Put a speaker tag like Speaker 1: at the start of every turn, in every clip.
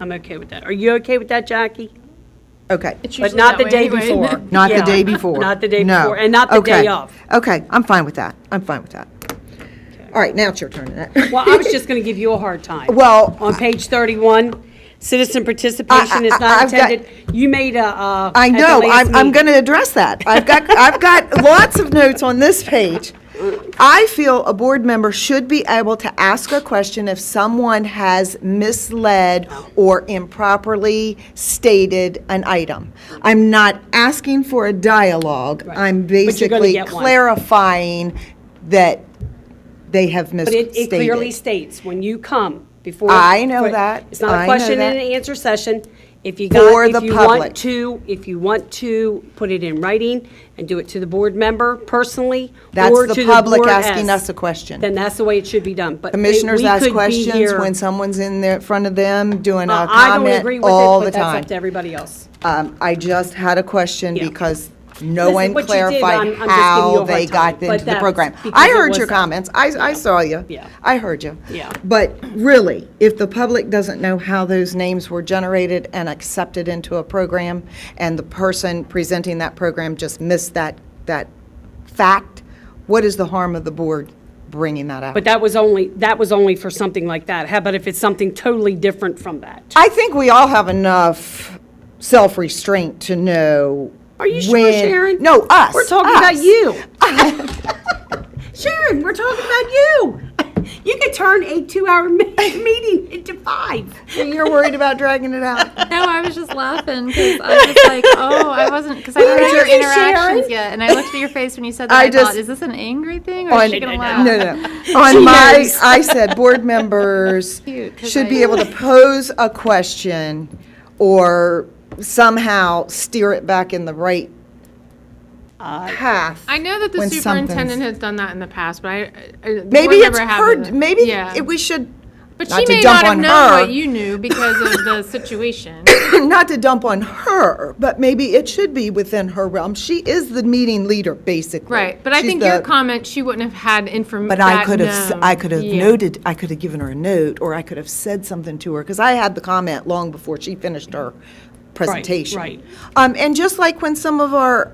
Speaker 1: I'm okay with that. Are you okay with that, Jackie?
Speaker 2: Okay.
Speaker 3: It's
Speaker 1: But
Speaker 3: usually
Speaker 1: not the
Speaker 3: that
Speaker 1: day
Speaker 3: way anyway.
Speaker 1: before.
Speaker 2: Not the
Speaker 1: Yeah.
Speaker 2: day before.
Speaker 1: Not the day
Speaker 2: No.
Speaker 1: before, and not the day
Speaker 2: Okay.
Speaker 1: of.
Speaker 2: Okay, I'm fine with that. I'm fine with that. All right, now it's your turn, Annette.
Speaker 1: Well, I was just going to give you a hard time.
Speaker 2: Well,
Speaker 1: On page 31, citizen participation is
Speaker 2: I-
Speaker 1: not
Speaker 2: I've got-
Speaker 1: intended. You made a, uh.
Speaker 2: I
Speaker 1: at the
Speaker 2: know,
Speaker 1: last
Speaker 2: I'm, I'm
Speaker 1: meeting.
Speaker 2: going to address that. I've got, I've got lots of notes on this page. I feel a board member should be able to ask a question if someone has misled or improperly stated an item. I'm not asking for a dialogue.
Speaker 1: Right.
Speaker 2: I'm
Speaker 1: But you're gonna
Speaker 2: basically
Speaker 1: get one.
Speaker 2: clarifying that they have
Speaker 1: But
Speaker 2: misstated.
Speaker 1: it, it clearly states, when you come, before.
Speaker 2: I know
Speaker 1: for-
Speaker 2: that.
Speaker 1: It's not
Speaker 2: I
Speaker 1: a
Speaker 2: know
Speaker 1: question and
Speaker 2: that.
Speaker 1: an answer session. If you
Speaker 2: For
Speaker 1: got,
Speaker 2: the
Speaker 1: if you
Speaker 2: public.
Speaker 1: want to, if you want to, put it in writing and do it to the board member personally.
Speaker 2: That's
Speaker 1: or
Speaker 2: the
Speaker 1: to
Speaker 2: public
Speaker 1: board
Speaker 2: asking
Speaker 1: as-
Speaker 2: us a question.
Speaker 1: Then that's the way it should be done, but. it-
Speaker 2: Commissioners
Speaker 1: we could
Speaker 2: ask
Speaker 1: be
Speaker 2: questions
Speaker 1: here-
Speaker 2: when someone's in there, in front of them, doing
Speaker 1: Uh,
Speaker 2: a
Speaker 1: I don't agree with it,
Speaker 2: comment all
Speaker 1: but
Speaker 2: the
Speaker 1: That's
Speaker 2: time.
Speaker 1: up to everybody else.
Speaker 2: Um, I just had a question
Speaker 1: Yeah.
Speaker 2: because no
Speaker 1: Listen,
Speaker 2: one
Speaker 1: what you did, I'm- I'm
Speaker 2: clarified
Speaker 1: just giving you a
Speaker 2: how
Speaker 1: hard
Speaker 2: they got
Speaker 1: time, but
Speaker 2: into the
Speaker 1: that's
Speaker 2: program.
Speaker 1: because
Speaker 2: I
Speaker 1: it
Speaker 2: heard your
Speaker 1: wasn't-
Speaker 2: comments. I, I saw you.
Speaker 1: Yeah.
Speaker 2: I heard you.
Speaker 1: Yeah.
Speaker 2: But really, if the public doesn't know how those names were generated and accepted into a program, and the person presenting that program just missed that, that fact, what is the harm of the board bringing that out?
Speaker 1: But that was only, that was only for something like that. How about if it's something totally different from that?
Speaker 2: I think we all have enough self restraint to know.
Speaker 1: Are you sure,
Speaker 2: when,
Speaker 1: Sharon?
Speaker 2: No, us.
Speaker 1: We're talking about
Speaker 2: us.
Speaker 1: you. Sharon, we're talking about you. You could turn a two-hour me- meeting into five.
Speaker 2: You're worried about dragging it out.
Speaker 3: No, I was just laughing because I was like, oh, I wasn't, because I heard your
Speaker 2: you, Sharon.
Speaker 3: interactions yet. And I looked at your face when you said that.
Speaker 2: I
Speaker 3: I
Speaker 2: just- Oh,
Speaker 3: thought, is this an angry thing or is she going to
Speaker 2: no,
Speaker 3: laugh?
Speaker 2: no. On my, I said board members
Speaker 3: Cute, 'cause
Speaker 2: should be
Speaker 3: I-
Speaker 2: able to pose a question or somehow steer it back in the right path.
Speaker 4: Uh, I know that the
Speaker 2: when
Speaker 4: superintendent
Speaker 2: something's-
Speaker 4: has done that in the past, but I, I the
Speaker 2: Maybe
Speaker 4: board
Speaker 2: it's
Speaker 4: member
Speaker 2: her.
Speaker 4: hasn't.
Speaker 2: Maybe
Speaker 4: yeah.
Speaker 2: it, we should.
Speaker 4: but
Speaker 2: not
Speaker 4: she
Speaker 2: to
Speaker 4: may
Speaker 2: dump
Speaker 4: not have
Speaker 2: on
Speaker 4: known
Speaker 2: her.
Speaker 4: what you knew because of the situation.
Speaker 2: not to dump on her, but maybe it should be within her realm. She is the meeting leader, basically.
Speaker 4: right, but I
Speaker 2: She's
Speaker 4: think
Speaker 2: the-
Speaker 4: your comment, she wouldn't have had
Speaker 1: Mm,
Speaker 4: information.
Speaker 2: But I could have, s-
Speaker 4: known.
Speaker 2: I could have
Speaker 4: Yeah.
Speaker 2: noted, I could have given her a note, or I could have said something to her, because I had the comment long before she finished her presentation.
Speaker 1: right.
Speaker 2: Um, and just like when some of our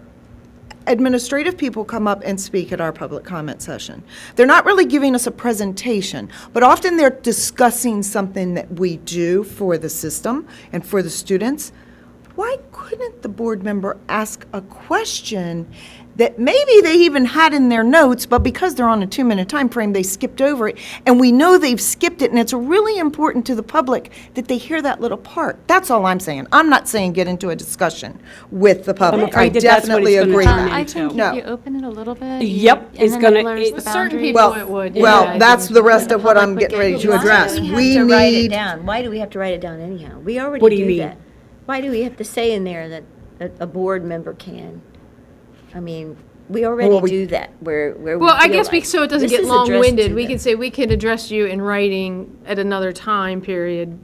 Speaker 2: administrative people come up and speak at our public comment session, they're not really giving us a presentation, but often they're discussing something that we do for the system and for the students. Why couldn't the board member ask a question that maybe they even had in their notes, but because they're on a two-minute time frame, they skipped over it, and we know they've skipped it, and it's really important to the public that they hear that little part. That's all I'm saying. I'm not saying get into a discussion with the public. I
Speaker 1: afraid that that's what
Speaker 2: definitely
Speaker 1: it's gonna
Speaker 2: agree.
Speaker 1: turn
Speaker 3: Uh,
Speaker 1: into.
Speaker 3: I think
Speaker 2: No.
Speaker 3: if you open it a little bit.
Speaker 1: Yep,
Speaker 3: you-
Speaker 1: it's
Speaker 3: and then
Speaker 1: gonna-
Speaker 3: it blurs
Speaker 1: it-
Speaker 3: the
Speaker 1: Certain
Speaker 3: boundaries.
Speaker 4: people
Speaker 2: Well,
Speaker 4: it would, yeah, I
Speaker 2: well,
Speaker 4: think
Speaker 2: that's the rest
Speaker 3: the
Speaker 2: of what
Speaker 3: public
Speaker 2: I'm
Speaker 3: would
Speaker 2: getting
Speaker 3: get
Speaker 2: ready to
Speaker 3: lost.
Speaker 2: address.
Speaker 5: Why do
Speaker 2: We
Speaker 5: have to write it
Speaker 2: need,
Speaker 5: down? Why do we have to write it down anyhow? We
Speaker 1: What do you
Speaker 5: already
Speaker 1: mean?
Speaker 5: do that. Why do we have to say in there that a, a board member can? I mean, we already
Speaker 2: we-
Speaker 5: do that where, where we
Speaker 4: Well, I
Speaker 5: feel
Speaker 4: guess we,
Speaker 5: like
Speaker 4: so it doesn't
Speaker 5: this
Speaker 4: get
Speaker 5: is addressed to
Speaker 4: long-winded, we
Speaker 5: them.
Speaker 4: could say, we could address you in writing at another time period.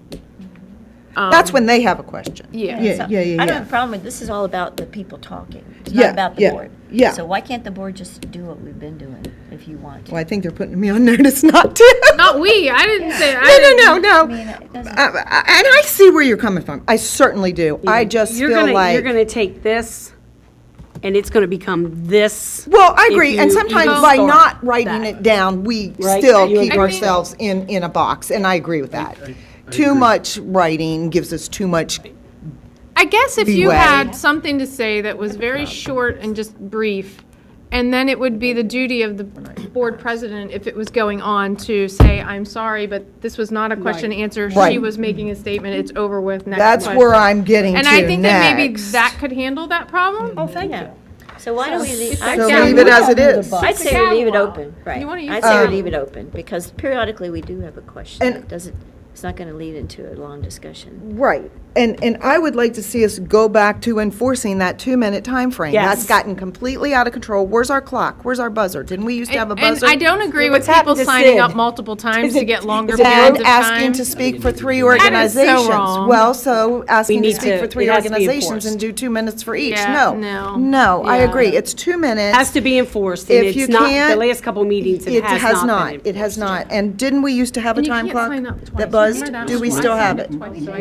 Speaker 2: that's when they have a question.
Speaker 4: Yeah.
Speaker 2: Yeah, yeah, yeah,
Speaker 5: I don't
Speaker 2: yeah.
Speaker 5: have a problem with, this is all about the people talking. It's
Speaker 2: Yeah,
Speaker 5: not about the
Speaker 2: yeah,
Speaker 5: board.
Speaker 2: yeah.
Speaker 5: So why can't the board just do what we've been doing if you want to?
Speaker 2: Well, I think they're putting me on notice not to.
Speaker 4: Not we, I didn't say, I
Speaker 2: No,
Speaker 4: didn't.
Speaker 2: no, no, no.
Speaker 5: I mean, it doesn't-
Speaker 2: Uh, uh, And I see where you're coming from. I certainly do. I just
Speaker 1: You're
Speaker 2: feel
Speaker 1: gonna, you're
Speaker 2: like,
Speaker 1: gonna take this, and it's gonna become this.
Speaker 2: well, I
Speaker 1: if
Speaker 2: agree. And
Speaker 1: you
Speaker 2: sometimes
Speaker 1: even
Speaker 2: by
Speaker 1: start
Speaker 2: not writing
Speaker 1: that.
Speaker 2: it down, we
Speaker 1: Right,
Speaker 2: still
Speaker 1: you
Speaker 2: keep
Speaker 1: agree.
Speaker 2: ourselves in, in a box, and I agree with that. Too much writing gives us too much,
Speaker 4: I guess if you
Speaker 2: leeway.
Speaker 4: had something to say that was very short and just brief, and then it would be the duty of the board president, if it was going on, to say, I'm sorry, but this was not a question and answer. She
Speaker 2: Right.
Speaker 4: was making a statement, it's over with, next
Speaker 2: that's
Speaker 4: question.
Speaker 2: where I'm getting to
Speaker 4: And
Speaker 2: next.
Speaker 4: I think that maybe that could handle that problem.
Speaker 5: Oh, thank you. So why do we leave? I'd
Speaker 2: So
Speaker 5: say-
Speaker 2: leave it as it is.
Speaker 5: I'd say we leave it open, right.
Speaker 4: You wanna use
Speaker 5: I'd say we leave it open, because periodically we do have a question.
Speaker 2: And-
Speaker 5: It doesn't, it's not going to lead into a long discussion.
Speaker 2: Right. And, and I would like to see us go back to enforcing that two-minute time frame. That's
Speaker 1: Yes.
Speaker 2: gotten completely out of control. Where's our clock? Where's our buzzer? Didn't we used to have a
Speaker 4: And
Speaker 2: buzzer?
Speaker 4: I don't agree with
Speaker 2: What's happened to
Speaker 4: people signing up
Speaker 2: Sid?
Speaker 4: multiple times to get longer
Speaker 2: Is it
Speaker 4: periods of
Speaker 2: asking
Speaker 4: time.
Speaker 2: to speak for three
Speaker 4: That is so
Speaker 2: organizations.
Speaker 4: wrong.
Speaker 2: Well, so asking to
Speaker 1: need
Speaker 2: speak
Speaker 1: to-
Speaker 2: for three
Speaker 1: it has to be
Speaker 2: organizations
Speaker 1: enforced.
Speaker 2: and do two minutes for each.
Speaker 4: Yeah,
Speaker 2: No.
Speaker 4: no.
Speaker 2: No, I
Speaker 4: Yeah.
Speaker 2: agree. It's two minutes.
Speaker 1: Has to be enforced, and
Speaker 2: If you
Speaker 1: it's not, the
Speaker 2: can't,
Speaker 1: last couple meetings, it has not been.
Speaker 2: It has not. And didn't we used to have a
Speaker 4: And you
Speaker 2: time
Speaker 4: can't
Speaker 2: clock
Speaker 4: sign up twice.
Speaker 2: that buzzed?
Speaker 4: Remember that
Speaker 2: Do we
Speaker 4: was
Speaker 2: still
Speaker 4: twice.
Speaker 2: have it?
Speaker 4: Twice, so I